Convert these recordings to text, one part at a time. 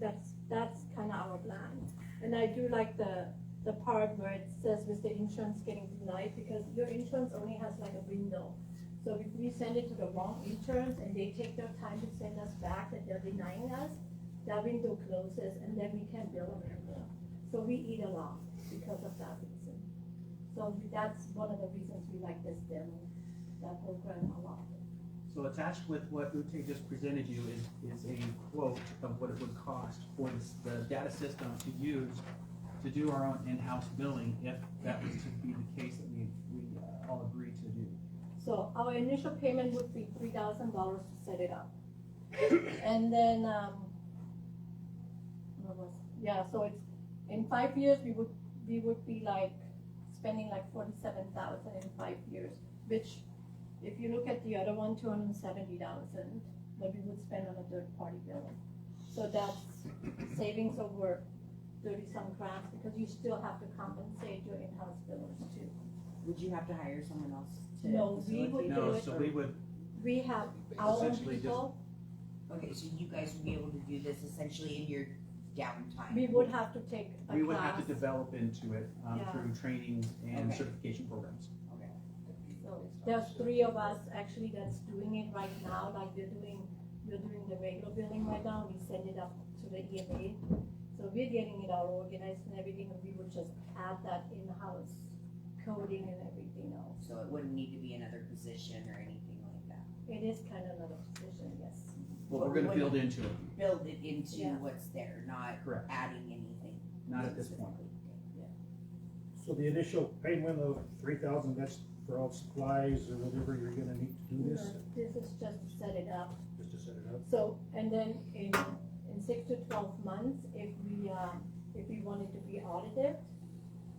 that's, that's kind of our plan. And I do like the, the part where it says with the insurance getting denied, because your insurance only has like a window. So if we send it to the wrong insurance and they take their time to send us back that they're denying us, that window closes and then we can bill them anymore. So we eat a lot because of that reason. So that's one of the reasons we like this demo, that program a lot. So attached with what Ute just presented you is, is a quote of what it would cost for this- the data system to use to do our own in-house billing, if that was to be the case that we, we uh, all agreed to do. So our initial payment would be three thousand dollars to set it up. And then, um, what was, yeah, so it's, in five years, we would, we would be like spending like forty-seven thousand in five years, which if you look at the other one, two hundred and seventy thousand, that we would spend on a third-party billing. So that's savings over thirty-some grand, because you still have to compensate your in-house billers too. Would you have to hire someone else to? No, we facilitate? would- No, so we would We have our own essentially just, people, Okay, so you guys would be able to do this essentially in your downtime? We would have to take a we would have to class, develop into it, um, Yeah. through training and Okay. certification programs. so There's three of us actually that's doing it right now, like we're doing, we're doing the regular billing right now, we send it up to the EMA. So we're getting it all organized and everything, and we would just add that in-house coding and everything else. So it wouldn't need to be another position or anything like that? It is kind of another position, yes. Well, we're But gonna we build into it, Build it into Yeah. what's there, not correct, adding anything? not at this point. So the initial payment of three thousand, that's for all supplies or whatever you're gonna need to do this, This is just to set it up. just to set it up? So, and then in, in six to twelve months, if we, uh, if we wanted to be audited,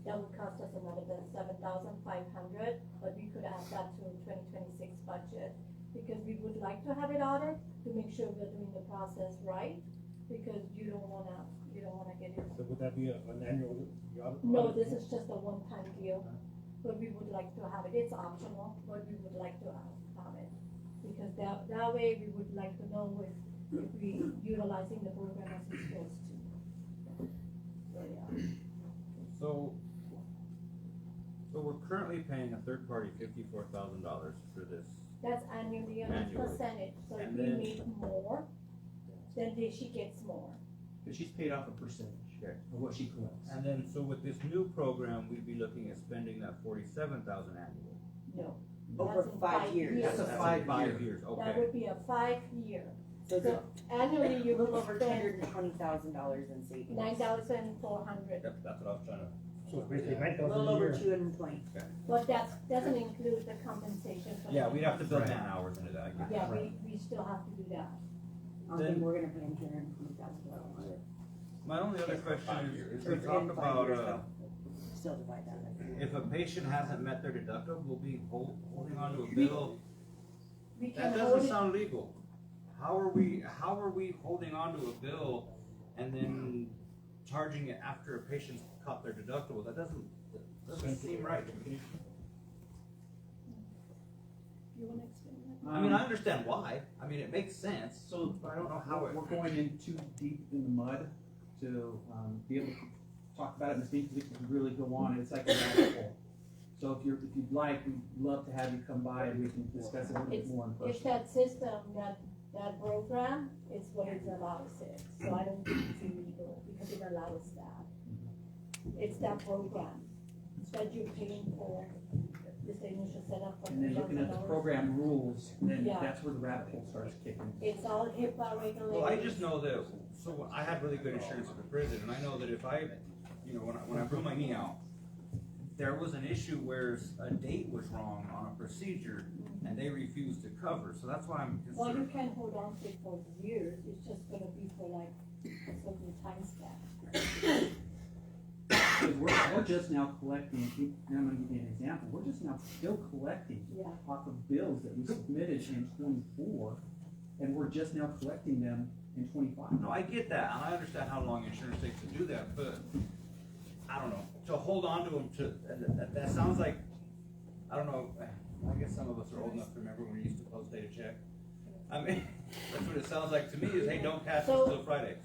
that would cost us another seven thousand five hundred, but we could add that to twenty twenty-six budget. Because we would like to have it audited to make sure we're doing the process right, because you don't wanna, you don't wanna get it. So would that be a- an annual? audit- No, audit? this is just a one-time deal, but we would like to have it, it's optional, but we would like to have have it. Because that, that way we would like to know if, if we utilizing the program as it's supposed to. So, yeah. So, so we're currently paying a third party fifty-four thousand dollars for this. That's annually and it's Annually. percentage, so if And we then- need more, then they- she gets more. But she's paid off a percentage Okay. of what she collects. And then, so with this new program, we'd be looking at spending that forty-seven thousand annually. No, Over That's in five five years? years. That's a That's in five year. Five years, that okay. would be a five-year. So it's a So annually you little will over two spend hundred and twenty thousand dollars in savings. nine thousand four hundred. Yep, that's what I was trying to. So it's basically Yeah. nine A thousand little a over year. two hundred and twenty. But that doesn't include the compensation for. Yeah, we'd have to build Right. man hours into that, I get it. Yeah, we, we still have to do that. I don't think Then- we're gonna pay him two hundred and twenty thousand dollars. My only other Check for five question years. is, we talked about, uh, Still divide that if a patient hasn't met their deductible, we'll be hol- holding on to a bill. We That can hold doesn't it, sound legal. How are we, how are we holding on to a bill and then charging it after a patient's caught their deductible? That doesn't, that doesn't seem right to me. you wanna explain that? Um, I mean, I understand why. I mean, it makes sense. So I don't know how it. We're going in too deep in the mud to, um, be able to talk about it in the deep, we can really go on, it's like a rabbit hole. So if you're, if you'd like, we'd love to have you come by and we can discuss it a little bit more in If person. that system, that, that program is what it allows it, so I don't think it's illegal, because it allows that. It's that program that you're paying for, this initial setup for And then looking at the $1,000. program rules, then Yeah. that's where the rabbit hole starts kicking. It's all HIPAA regulated. Well, I just know that, so I had really good insurance at the prison, and I know that if I, you know, when I, when I blew my knee out, there was an issue where s- a date was wrong on a procedure, and they refused to cover, so that's why I'm Well, you concerned. can hold on to it for years, it's just gonna be for like, a certain time span. Because we're, we're just now collecting, and I'm gonna give you an example, we're just now still collecting yeah. off of bills that we submitted in twenty-four, and we're just now collecting them in twenty-five. No, I get that, and I understand how long insurance takes to do that, but, I don't know, to hold on to them to, that- that, that sounds like, I don't know, I guess some of us are old enough to remember when we used to post data check. I mean, that's what it sounds like to me, is, hey, don't cash this till Friday.